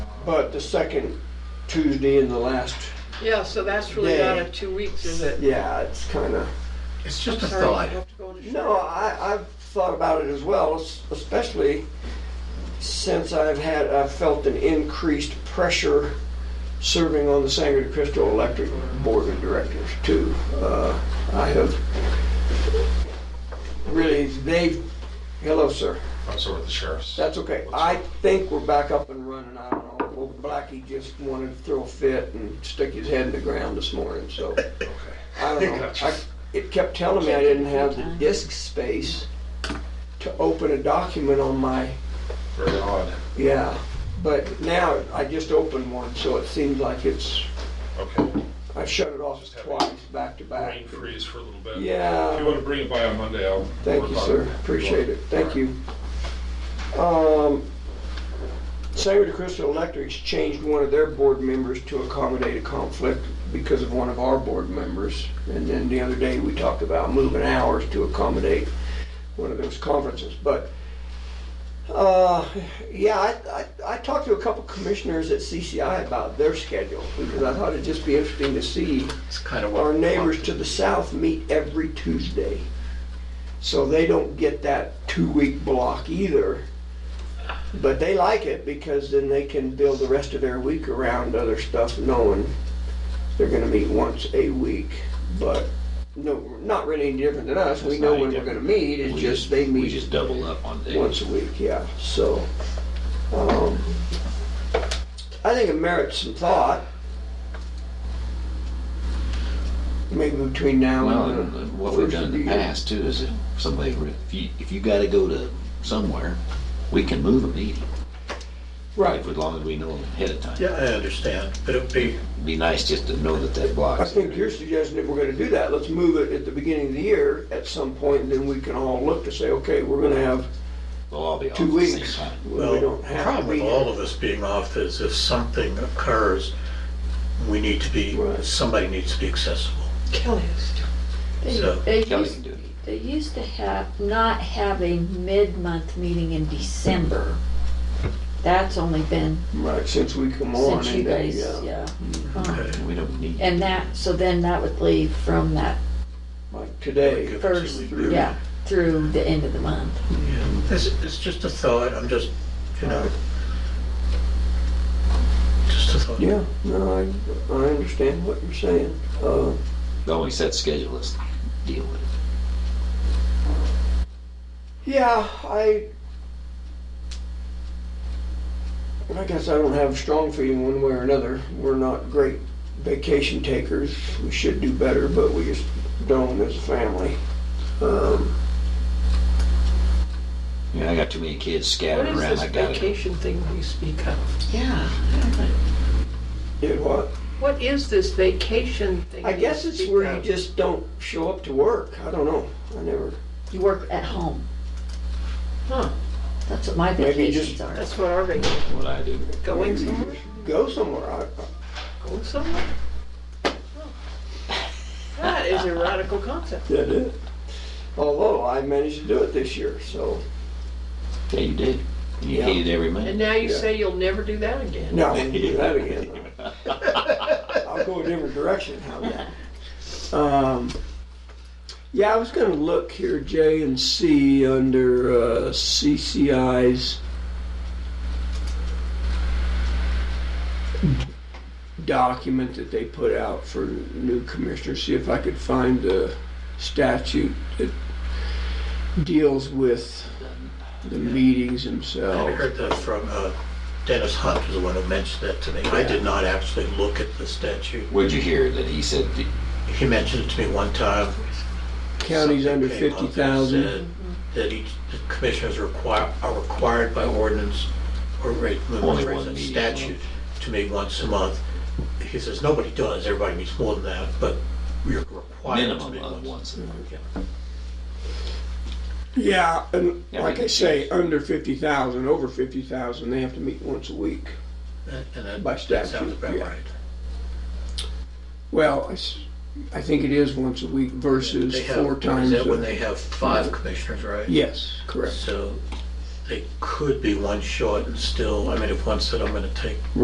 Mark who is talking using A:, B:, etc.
A: but the second Tuesday in the last,
B: Yeah, so that's really
A: Yeah.
B: out of two weeks, is it?
A: yeah, it's kind of,
C: It's just a
B: Sorry, you
C: thought.
B: have to go to Sherman.
A: no, I, I've thought about it as well, es- especially since I've had, I've felt an increased pressure serving on the Sangre de Cristo Electric Board of Directors too. Uh, I have really, they've, hello, sir.
C: I'm sort of the sheriff's.
A: That's okay. I think we're back up and running. I don't know. Well, Blackie just wanted to throw a fit and stick his head in the ground this morning, so
C: Okay.
A: I don't know.
C: Gotcha.
A: I, it kept telling me I didn't have the disk space to open a document on my,
C: Very odd.
A: yeah. But now I just opened one, so it seems like it's,
C: Okay.
A: I shut it off twice, back to back.
C: Brain freeze for a little bit. If you
A: Yeah,
C: want to bring it by on Monday, I'll.
A: thank you, sir. Appreciate it. Thank you. Um, Sangre de Cristo Electric's changed one of their board members to accommodate a conflict because of one of our board members. And then the other day, we talked about moving hours to accommodate one of those conferences. But, uh, yeah, I, I, I talked to a couple commissioners at CCI about their schedule because I thought it'd just be interesting to see
D: It's kind of what.
A: our neighbors to the south meet every Tuesday. So they don't get that two-week block either. But they like it because then they can build the rest of their week around other stuff, knowing they're gonna meet once a week. But no, not really any different than us. We
D: It's
A: know
D: not any
A: when we're gonna
D: different.
A: meet. It's
D: We
A: just they
D: We
A: meet
D: just double up on days.
A: once a week, yeah. So, um, I think it merits some thought. Maybe between now
D: Well,
A: and.
D: and
A: the
D: and what we've
A: first
D: done
A: of
D: in the
A: year.
D: past too is if somebody, re- if you, if you gotta go to somewhere, we can move a meeting,
A: Right.
D: if, as long as we know ahead of time.
E: Yeah, I understand, but it would be,
D: Be nice just to know that that block.
A: I think you're suggesting if we're gonna do that, let's move it at the beginning of the year at some point, and then we can all look to say, okay, we're gonna have
D: We'll all be off at
A: two
D: the same
A: weeks.
D: time.
A: when
E: well,
A: We don't
E: the
A: have to
E: problem
A: be
E: with
A: here.
E: all of us being off is if something occurs, we need to be,
A: Right.
E: somebody needs to be accessible.
B: Kelly is doing
F: They,
E: So-
F: they
D: Kelly
F: used,
D: can do it.
F: they used to have, not have a mid-month meeting in December. That's only been
A: Right, since we come on.
F: since you
A: and then,
F: guys,
A: yeah.
F: yeah.
A: Uh-huh.
F: Uh,
E: Mm-hmm. Okay.
D: We don't need,
F: And that, so then that would leave from that
A: Like today,
E: Good.
F: first,
E: Through-
F: yeah, through the end of the month.
E: Yeah, It's, it's just a thought, I'm just, you know, just a thought.
A: yeah, no, I, I understand what you're saying. Uh,
D: the only set schedule is deal with. it.
A: Yeah, I. I guess I don't have a strong feeling one way or another. We're not great vacation takers. We should do better, but we just don't as a family. Um,
D: You know, I got too many
B: What
D: kids scattered
B: is
D: around,
B: this
D: I gotta,
B: vacation thing we speak of?
F: Yeah.
A: did what?
B: What is this vacation thing?
A: I
B: we
A: guess it's
B: speak
A: where you
B: of?
A: just don't show up to work. I don't know. I never.
F: You work at home.
B: Huh.
F: That's what my
A: Maybe you
F: vacations
A: just-
F: are.
B: That's what our vacation,
D: what I do.
B: going somewhere,
A: Go somewhere. I,
B: going somewhere? Oh. That is a radical concept.
A: did it. Although I managed to do it this year, so
D: Yeah, you did. You
A: Yeah.
D: hated every
B: And
D: minute.
B: now you
A: Yeah.
B: say you'll never do that again.
A: no, we can do that again. I'll go a different direction. How about that? Um, yeah, I was going to look here, J and C, under uh, CCI's document that they put out for new commissioners, see if I could find the statute that deals with the meetings
E: I
A: themselves.
E: heard that from uh, Dennis Hunt, was the one who mentioned that to me. I did not actually look at the statute.
D: What'd you hear that he said, that-
E: He mentioned it to me one time.
A: Counties under
E: Something came up
A: fifty
E: and
A: thousand.
E: said That each, the commissioners require, are required by ordinance or rate,
D: Only
E: or
D: one meeting.
E: statute to meet once a month. He says, nobody does, everybody meets more than that, but we're required to
D: minimum
E: meet
D: of
E: once.
D: once a month.
A: Yeah, and
D: Yeah,
A: like
D: we
A: I
D: can
A: say,
D: choose.
A: under fifty thousand, over fifty thousand, they have to meet once a week.
E: And- and that-
A: By
E: that sounds
A: statute,
E: about
A: yeah.
E: right.
A: Well, I s- I think it is once a week versus
E: They have-
A: four times.
E: Is that
A: a-
E: when they have five commissioners, right?
A: Yes, correct.
E: So they could be one short and still, I mean, if one said, I'm gonna take